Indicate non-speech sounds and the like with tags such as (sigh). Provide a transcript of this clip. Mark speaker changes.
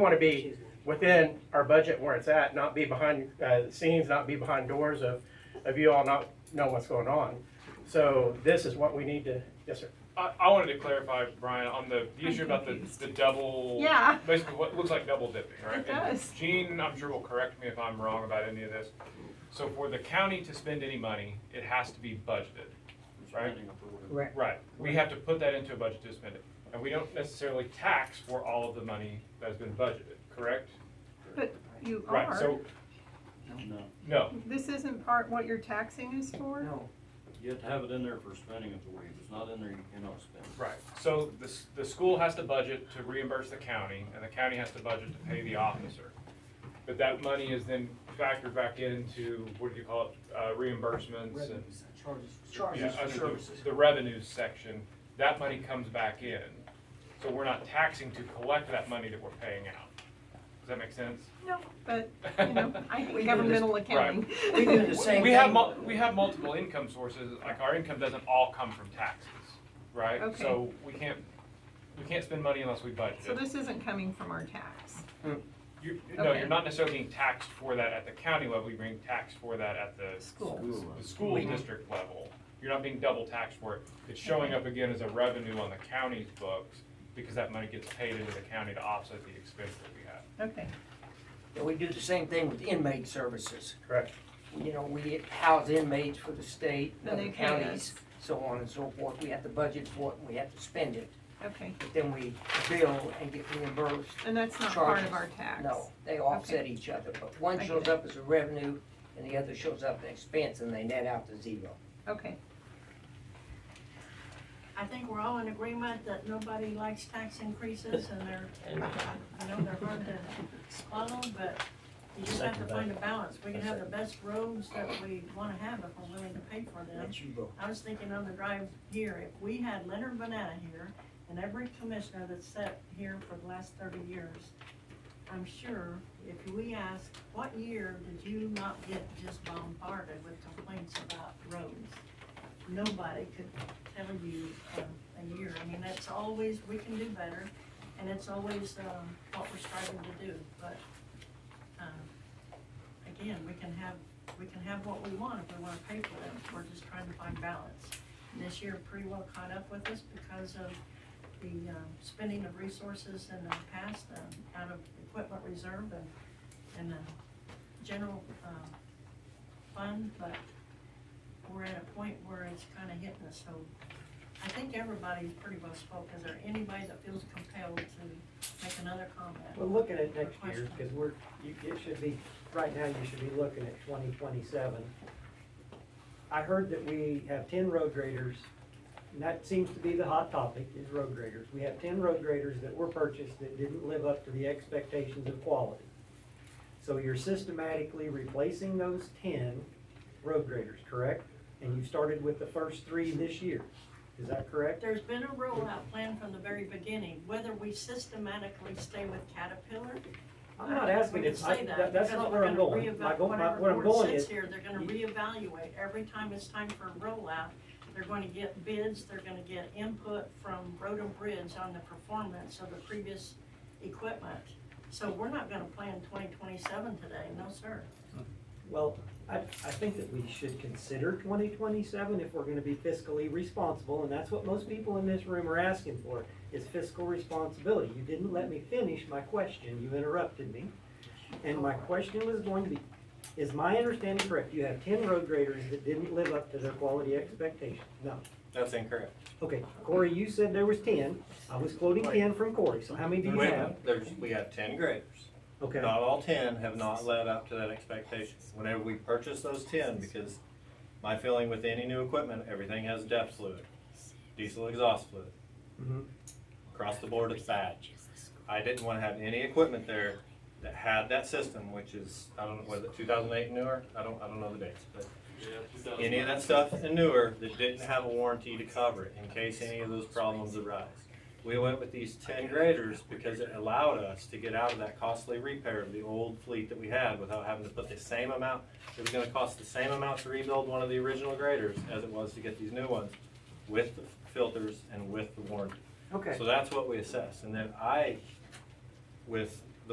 Speaker 1: want to be within our budget where it's at, not be behind uh, the scenes, not be behind doors of, of you all not know what's going on. So this is what we need to, yes, sir.
Speaker 2: I, I wanted to clarify, Brian, on the, the issue about the, the double.
Speaker 3: Yeah.
Speaker 2: Basically, what looks like double dipping, right?
Speaker 3: It
Speaker 2: And
Speaker 3: does.
Speaker 2: Gene, I'm sure will correct me if I'm wrong about any of this. So for the county to spend any money, it has to be budgeted, right?
Speaker 4: Right.
Speaker 2: Right, we have to put that into a budget to spend it. And we don't necessarily tax for all of the money that has been budgeted, correct?
Speaker 3: But you
Speaker 2: Right,
Speaker 3: are.
Speaker 2: so. No,
Speaker 3: This isn't part what your taxing is for?
Speaker 4: No,
Speaker 5: You have to have it in there for spending authority. If it's not in there, you cannot spend.
Speaker 2: right, so the, s- the school has to budget to reimburse the county, and the county has to budget to pay the officer. But that money is then factored back into, what do you call it, uh, reimbursements and.
Speaker 4: Charges.
Speaker 2: Yeah, uh, sure, The revenues section, that money comes back in, so we're not taxing to collect that money that we're paying out. Does that make sense?
Speaker 3: No,
Speaker 2: (laughs)
Speaker 3: but, you know, I hate governmental accounting.
Speaker 4: We do the same
Speaker 2: We have,
Speaker 4: thing.
Speaker 2: mul- we have multiple income sources, like our income doesn't all come from taxes, right?
Speaker 3: Okay.
Speaker 2: So we can't, we can't spend money unless we budget.
Speaker 3: (laughs) So this isn't coming from our tax.
Speaker 2: You, no,
Speaker 3: okay.
Speaker 2: you're not necessarily being taxed for that at the county level, you're being taxed for that at the.
Speaker 3: School. Mm-hmm.
Speaker 2: The school district level, you're not being double taxed for it, it's showing up again as a revenue on the county's books, because that money gets paid into the county to offset the expense that we have.
Speaker 3: Okay,
Speaker 4: And we do the same thing with inmate services.
Speaker 1: Correct.
Speaker 4: You know, we house inmates for the state,
Speaker 3: Then
Speaker 4: other
Speaker 3: they pay
Speaker 4: counties,
Speaker 3: us.
Speaker 4: so on and so forth. We have to budget for it and we have to spend it.
Speaker 3: okay.
Speaker 4: But then we bill and get reimbursed.
Speaker 3: And that's not part
Speaker 4: Charges.
Speaker 3: of our tax?
Speaker 4: No, they offset each other, but one
Speaker 3: I
Speaker 4: shows
Speaker 3: get it.
Speaker 4: up as a revenue and the other shows up as expense and they net out to zero.
Speaker 3: Okay,
Speaker 6: I think we're all in agreement that nobody likes tax increases and they're, I know they're hard to swallow, but you just have to find a balance. We can have the best roads that we wanna have if we're willing to pay for them.
Speaker 4: That's you go.
Speaker 6: I was thinking on the drive here, if we had Leonard Banana here and every commissioner that's sat here for the last thirty years, I'm sure if we ask, what year did you not get just bombarded with complaints about roads? Nobody could tell you um, a year. I mean, that's always, we can do better, and it's always um, what we're striving to do. But um, again, we can have, we can have what we want if we want to pay for them. We're just trying to find balance. And This year pretty well caught up with us because of the um, spending of resources in the past um, out of equipment reserve and, and the general um, fund, but we're at a point where it's kind of hitting us, so I think everybody's pretty well spoke. Is there anybody that feels compelled to make another
Speaker 7: Well,
Speaker 6: comment?
Speaker 7: look at it next year, because we're, you, it should be, right now, you should be looking at twenty twenty-seven. I heard that we have ten road graders, and that seems to be the hot topic, is road graders. We have ten road graders that were purchased that didn't live up to the expectations of quality. So you're systematically replacing those ten road graders, correct? And you started with the first three this year, is that correct?
Speaker 6: There's been a rollout plan from the very beginning, whether we systematically stay with Caterpillar.
Speaker 7: I'm not asking
Speaker 6: We can
Speaker 7: if, I,
Speaker 6: say
Speaker 7: that- that's
Speaker 6: because
Speaker 7: not
Speaker 6: we're
Speaker 7: where I'm
Speaker 6: gonna
Speaker 7: going. My
Speaker 6: reevaluate
Speaker 7: go- my-
Speaker 6: whatever
Speaker 7: What I'm
Speaker 6: board
Speaker 7: going
Speaker 6: sits
Speaker 7: is,
Speaker 6: Here, they're gonna reevaluate, every time it's time for a rollout, they're gonna get bids, they're gonna get input from Road and Bridge on the performance of the previous equipment. So we're not gonna plan twenty twenty-seven today, no sir.
Speaker 7: Well, I, I think that we should consider twenty twenty-seven if we're gonna be fiscally responsible, and that's what most people in this room are asking for, is fiscal responsibility. You didn't let me finish my question, you interrupted me. And my question was going to be, is my understanding correct, you have ten road graders that didn't live up to their quality expectations? No.
Speaker 8: That's incorrect.
Speaker 7: Okay, Corey, you said there was ten, I was quoting ten from Corey, so how many do you
Speaker 8: Wait a
Speaker 7: have?
Speaker 8: minute. There's, we have ten graders.
Speaker 7: Okay,
Speaker 8: Not all ten have not led up to that expectation. Whenever we purchase those ten, because my feeling with any new equipment, everything has depth fluid, diesel exhaust fluid.
Speaker 7: Mhm.
Speaker 8: Across the board, it's bad. I didn't wanna have any equipment there that had that system, which is, I don't know, was it two thousand eight newer? I don't, I don't know the dates, but any of that stuff and newer that didn't have a warranty to cover it in case any of those problems arise. We went with these ten graders because it allowed us to get out of that costly repair of the old fleet that we had without having to put the same amount. It was gonna cost the same amount to rebuild one of the original graders as it was to get these new ones with the filters and with the warranty.
Speaker 7: okay.
Speaker 8: So that's what we assess, and then I, with